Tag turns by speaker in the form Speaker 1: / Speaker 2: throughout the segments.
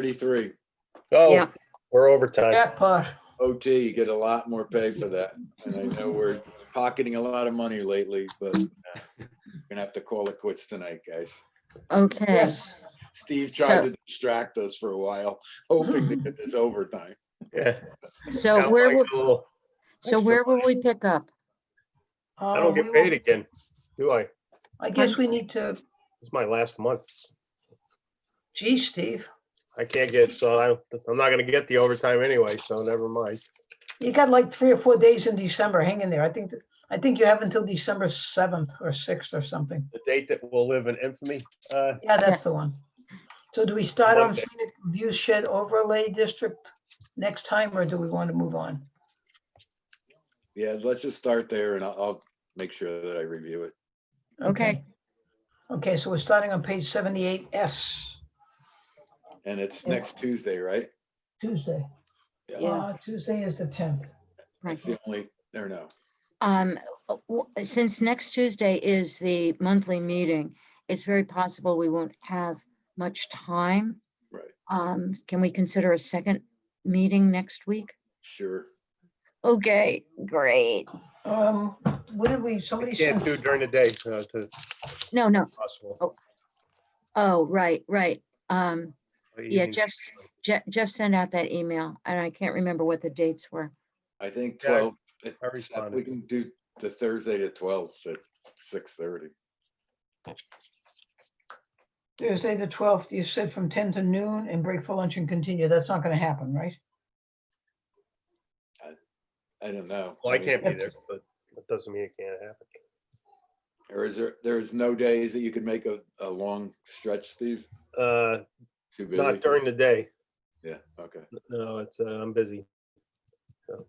Speaker 1: thirty-three.
Speaker 2: Oh,
Speaker 3: Yeah.
Speaker 2: we're overtime.
Speaker 4: Jackpot.
Speaker 1: OT, you get a lot more pay for that. And I know we're pocketing a lot of money lately, but uh, gonna have to call it quits tonight, guys.
Speaker 3: Okay,
Speaker 4: Yes.
Speaker 1: Steve tried to distract us for a while, hoping to get this overtime.
Speaker 2: Yeah.
Speaker 3: so
Speaker 2: Sounds
Speaker 3: where,
Speaker 2: like
Speaker 3: will
Speaker 2: a little-
Speaker 3: so
Speaker 2: extra
Speaker 3: where will we pick up?
Speaker 2: I don't
Speaker 4: Oh,
Speaker 2: get paid again, do I?
Speaker 4: Um, I guess we need to,
Speaker 2: It's my last month.
Speaker 4: gee, Steve,
Speaker 2: I can't get, so I, don't- I'm not gonna get the overtime anyway, so never mind.
Speaker 4: you got like three or four days in December. Hang in there. I think, th- I think you have until December 7th or 6th or something.
Speaker 2: The date that will live in infamy, uh,
Speaker 4: Yeah, that's the one. So do we start on
Speaker 2: Monday.
Speaker 4: scenic view shed overlay district next time, or do we want to move on?
Speaker 1: Yeah, let's just start there and I'll, I'll make sure that I review it.
Speaker 3: Okay,
Speaker 4: Okay, so we're starting on page 78S,
Speaker 1: And it's
Speaker 4: Yeah.
Speaker 1: next Tuesday, right?
Speaker 4: Tuesday.
Speaker 3: Yeah.
Speaker 4: Uh, Tuesday is the 10th.
Speaker 1: That's the only, there no.
Speaker 3: um, w- since next Tuesday is the monthly meeting, it's very possible we won't have much time.
Speaker 1: Right.
Speaker 3: Um, can we consider a second meeting next week?
Speaker 1: Sure.
Speaker 3: Okay, great.
Speaker 4: Um, what did we, somebody
Speaker 2: I
Speaker 4: sent,
Speaker 2: can't do during the day, uh, to
Speaker 3: No, no,
Speaker 2: possible.
Speaker 3: oh, right, right. Um, yeah,
Speaker 2: Evening.
Speaker 3: Jeff, Jeff, Jeff sent out that email and I can't remember what the dates were.
Speaker 1: I think
Speaker 2: Yeah, I-
Speaker 1: twelve, it-
Speaker 2: I responded.
Speaker 1: we can do the Thursday to twelfth at six thirty.
Speaker 4: Thursday, the 12th, you said from 10 to noon and break for lunch and continue. That's not going to happen, right?
Speaker 1: I don't know.
Speaker 2: Well, I
Speaker 1: mean,
Speaker 2: can't be there, but that doesn't mean it can't happen.
Speaker 1: Or is there, there's no days that you could make a, a long stretch, Steve?
Speaker 2: Uh,
Speaker 1: Too busy?
Speaker 2: not during the day.
Speaker 1: Yeah, okay.
Speaker 2: No, it's, uh, I'm busy.
Speaker 1: Well,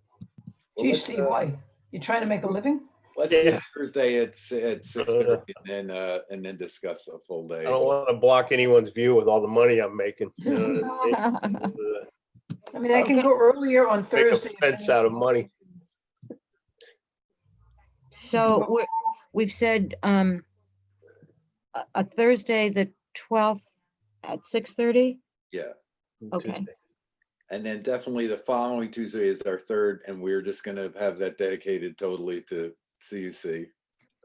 Speaker 4: Gee,
Speaker 1: let's,
Speaker 4: Steve,
Speaker 1: uh,
Speaker 4: why? You trying to make a living?
Speaker 1: Let's do
Speaker 2: Yeah. Uh-huh.
Speaker 1: Thursday at, si- at six thirty and then, uh, and then discuss a full
Speaker 2: I
Speaker 1: day.
Speaker 2: don't wanna block anyone's view with all the money I'm making. Uh, you know what I mean? Uh,
Speaker 4: I mean, I can go earlier on
Speaker 2: Make a
Speaker 4: Thursday. if
Speaker 2: fence
Speaker 4: any-
Speaker 2: out of money.
Speaker 3: So we're, we've said, um, a, a Thursday, the twelfth at six thirty?
Speaker 1: Yeah,
Speaker 3: Okay.
Speaker 2: Tuesday.
Speaker 1: and then definitely the following Tuesday is our third, and we're just gonna have that dedicated totally to CUC.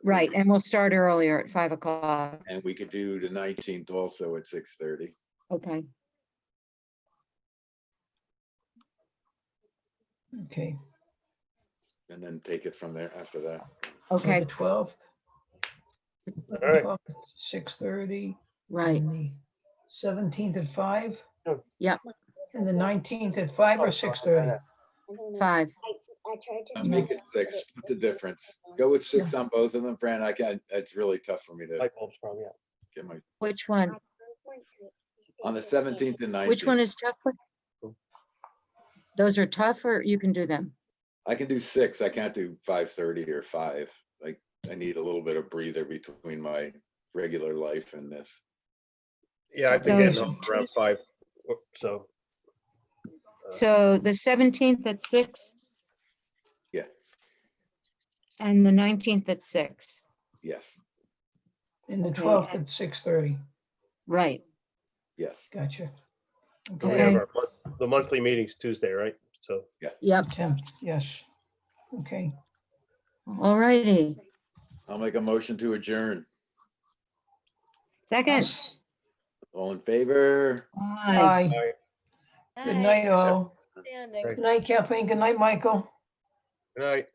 Speaker 3: Right, and we'll start earlier at five o'clock.
Speaker 1: And we could do the nineteenth also at six thirty.
Speaker 3: Okay,
Speaker 4: Okay.
Speaker 1: And then take it from there after that.
Speaker 3: okay,
Speaker 4: Twelfth.
Speaker 2: right.
Speaker 4: Six thirty.
Speaker 3: right.
Speaker 4: Seventeenth at five.
Speaker 2: Sure.
Speaker 3: Yep.
Speaker 4: And the nineteenth at five or six thirty.
Speaker 3: Five.
Speaker 1: Uh, Make it six, What's the difference. Go with six on both of them, Fran. I can, it's really tough for me to
Speaker 2: Light bulbs probably out.
Speaker 1: get my,
Speaker 3: Which one?
Speaker 1: on the seventeenth and nineteenth.
Speaker 3: Which one is tougher? Those are tough or you can do them?
Speaker 1: I can do six. I can't do five thirty or five. Like, I need a little bit of breather between my regular life and this.
Speaker 2: Yeah, I think
Speaker 3: So
Speaker 2: it's around five, so. Uh,
Speaker 3: So the seventeenth at six?
Speaker 1: Yeah.
Speaker 3: And the nineteenth at six,
Speaker 1: Yes,
Speaker 4: And the
Speaker 3: Okay,
Speaker 4: twelfth
Speaker 3: and-
Speaker 4: at six thirty.
Speaker 3: right,
Speaker 1: yes.
Speaker 4: Gotcha.
Speaker 2: we have
Speaker 4: Okay.
Speaker 3: Okay.
Speaker 2: our month- The monthly meeting's Tuesday, right? So,
Speaker 3: yep,
Speaker 4: Tim, yes. Okay.
Speaker 3: all righty.
Speaker 1: I'll make a motion to adjourn.
Speaker 3: Second.
Speaker 4: Yes.
Speaker 1: All in favor?
Speaker 3: Aye.
Speaker 4: Bye.
Speaker 2: all right,
Speaker 4: Good night, all.
Speaker 5: Standing.
Speaker 2: Right.
Speaker 4: Good night, Kathleen. Good night, Michael.
Speaker 2: good night.